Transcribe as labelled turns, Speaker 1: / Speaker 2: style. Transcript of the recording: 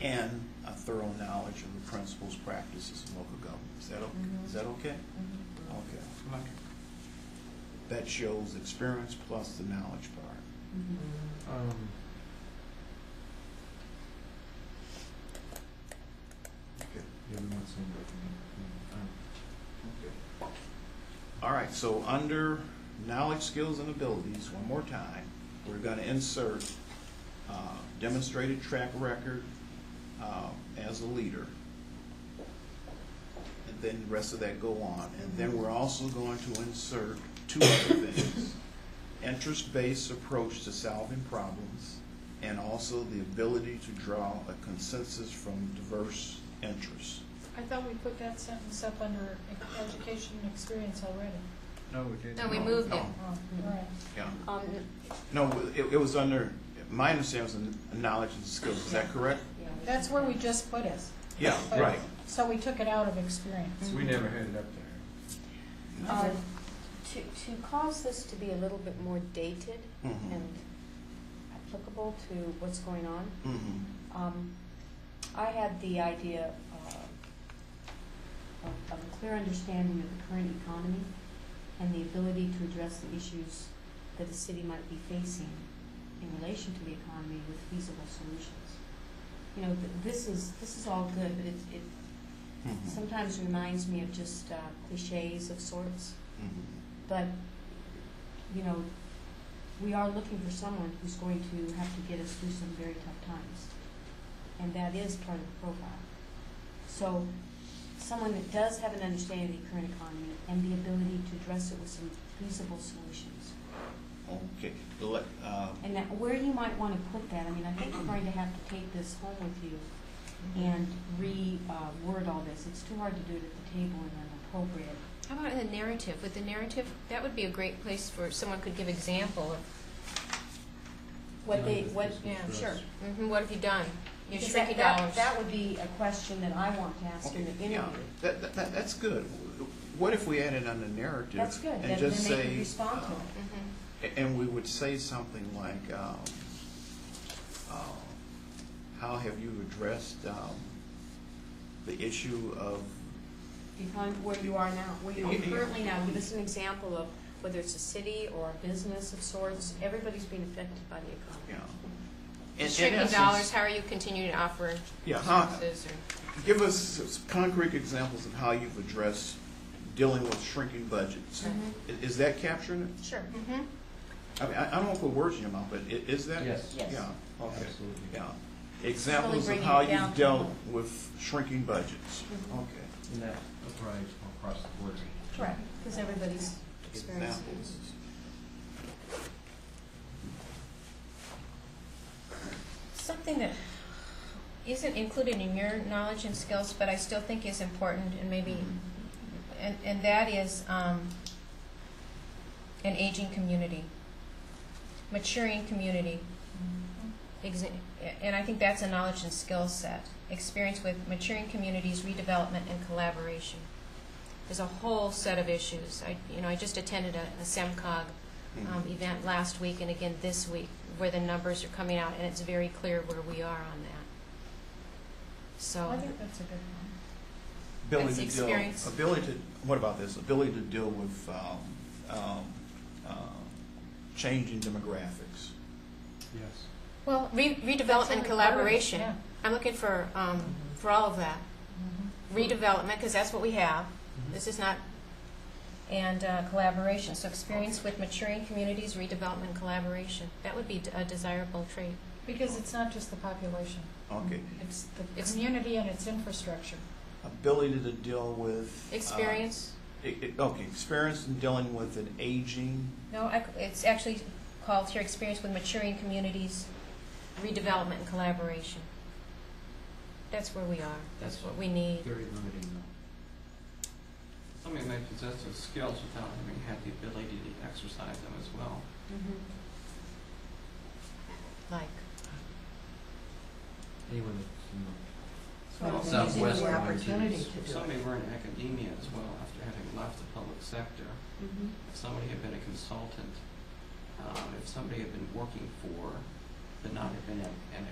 Speaker 1: and a thorough knowledge of the principles, practices of local government. Is that, o- is that okay? Okay. That shows experience plus the knowledge part.
Speaker 2: Um,
Speaker 1: Okay.
Speaker 2: yeah, we want some recommend- um,
Speaker 1: All right, so under knowledge, skills, and abilities, one more time, we're gonna insert uh, demonstrated track record uh, as a leader. And then the rest of that go on. And then we're also going to insert two other things. Interest-based approach to solving problems, and also the ability to draw a consensus from diverse interests.
Speaker 3: I thought we put that sentence up under education and experience already.
Speaker 2: No, we didn't.
Speaker 4: No, we moved it.
Speaker 1: No,
Speaker 3: Oh, all right.
Speaker 1: Yeah.
Speaker 4: Um,
Speaker 1: No, it, it was under, my understanding was in knowledge and skills, is that correct?
Speaker 3: That's where we just put it.
Speaker 1: Yeah,
Speaker 3: but- So we took it out of experience.
Speaker 2: We never had it up there.
Speaker 4: um,
Speaker 1: Mm-hmm.
Speaker 3: Okay.
Speaker 4: To, to cause this to be a little bit more dated
Speaker 1: Mhm.
Speaker 4: and applicable to what's going on,
Speaker 1: Mhm.
Speaker 4: um, I had the idea uh, of, of a clear understanding of the current economy and the ability to address the issues that the city might be facing in relation to the economy with feasible solutions. You know, th- this is, this is all good, but it, it
Speaker 1: Mhm.
Speaker 4: sometimes reminds me of just uh, cliches of sorts.
Speaker 1: Mhm.
Speaker 4: But, you know, we are looking for someone who's going to have to get us through some very tough times. And that is part of the profile. So, someone that does have an understanding of the current economy and the ability to address it with some feasible solutions.
Speaker 1: Okay, let, uh,
Speaker 4: And that, where you might want to put that, I mean, I think we're going to have to take this home with you and re-word all this. It's too hard to do it at the table in an appropriate
Speaker 5: How about in the narrative? With the narrative, that would be a great place for someone could give example of
Speaker 4: What they,
Speaker 2: Not
Speaker 4: what,
Speaker 2: if
Speaker 5: yeah,
Speaker 2: this is
Speaker 4: sure.
Speaker 2: us.
Speaker 5: mhm, what have you done? You
Speaker 4: Because that,
Speaker 5: shrink your
Speaker 4: that,
Speaker 5: dollars.
Speaker 4: that would be a question that I want to ask in
Speaker 1: okay,
Speaker 4: the interview.
Speaker 1: yeah, that, that- that, that's good. What if we added on the narrative?
Speaker 4: That's good, then,
Speaker 1: And
Speaker 4: then
Speaker 1: just
Speaker 4: they
Speaker 1: say.
Speaker 4: can respond to
Speaker 1: uh,
Speaker 4: it.
Speaker 5: Mhm.
Speaker 1: A- And we would say something like, um, uh, how have you addressed, um, the issue of,
Speaker 4: Behind where you are now, where you
Speaker 1: Yeah,
Speaker 4: are
Speaker 1: yeah.
Speaker 4: currently now, give us an example of whether it's a city or a business of sorts, everybody's being affected by the
Speaker 1: you
Speaker 4: economy.
Speaker 1: know? in- in
Speaker 5: Shrinking
Speaker 1: essence-
Speaker 5: dollars, how are you continuing to offer
Speaker 1: Yeah, how,
Speaker 5: services or?
Speaker 1: Give us some concrete examples of how you've addressed dealing with shrinking budgets. I- Is that capturing it?
Speaker 4: Mm-hmm. Sure.
Speaker 5: Mhm.
Speaker 1: I mean, I I don't want to put words in your mouth, but i- is that?
Speaker 2: Yes.
Speaker 4: Yes.
Speaker 1: Yeah, okay,
Speaker 2: Absolutely.
Speaker 1: yeah. Examples of
Speaker 4: bringing
Speaker 1: how
Speaker 4: it down
Speaker 1: you've
Speaker 4: to-
Speaker 1: dealt with shrinking budgets.
Speaker 4: Mhm.
Speaker 1: Okay.
Speaker 2: And that applies across the board.
Speaker 4: Correct, because everybody's experiencing.
Speaker 1: Examples.
Speaker 5: Something that isn't included in your knowledge and skills, but I still think is important and maybe, and, and that is, um, an aging community, maturing community. Exa- and I think that's a knowledge and skill set. Experience with maturing communities, redevelopment, and collaboration. There's a whole set of issues. I, you know, I just attended a, a SEMCOG
Speaker 1: Mm-hmm.
Speaker 5: um, event last week and again this week, where the numbers are coming out, and it's very clear where we are on that.
Speaker 3: I
Speaker 5: So,
Speaker 3: think that's a good one.
Speaker 1: Ability
Speaker 5: That's
Speaker 1: to deal-
Speaker 5: experience.
Speaker 1: Ability to, what about this? Ability to deal with um, um, uh, changing demographics.
Speaker 2: Yes.
Speaker 5: well, re-
Speaker 3: That's
Speaker 5: redevelopment
Speaker 3: under
Speaker 5: and collaboration.
Speaker 3: government,
Speaker 5: I'm looking for, um, for all of that.
Speaker 3: Mm-hmm.
Speaker 5: Redevelopment, because that's what we have. This is not, and uh, collaboration, so experience with maturing communities, redevelopment, collaboration. That would be d- a desirable trait.
Speaker 4: Uh,
Speaker 3: yeah. Because it's not just the population,
Speaker 1: Okay.
Speaker 4: Mm-hmm.
Speaker 3: it's the
Speaker 5: It's-
Speaker 3: community and its infrastructure.
Speaker 1: Ability to deal with. uh,
Speaker 5: Experience,
Speaker 1: It- it- Okay, experience in dealing with an aging,
Speaker 5: no, I c- it's actually called here, experience with maturing communities, redevelopment and collaboration. That's where we are, that's what we need.
Speaker 2: Very limiting though.
Speaker 6: Somebody may possess those skills without having had the ability to exercise them as well.
Speaker 4: Mhm.
Speaker 5: Like,
Speaker 2: Anyone that's, you know,
Speaker 4: Well,
Speaker 6: So,
Speaker 4: using the
Speaker 6: West
Speaker 4: word
Speaker 2: Orange is-
Speaker 4: Opportunity to do
Speaker 6: Some
Speaker 4: it.
Speaker 6: may were in academia as well after having left the public sector.
Speaker 4: Mhm.
Speaker 6: If somebody had been a um, consultant, uh, if somebody had been working for, but not had been an an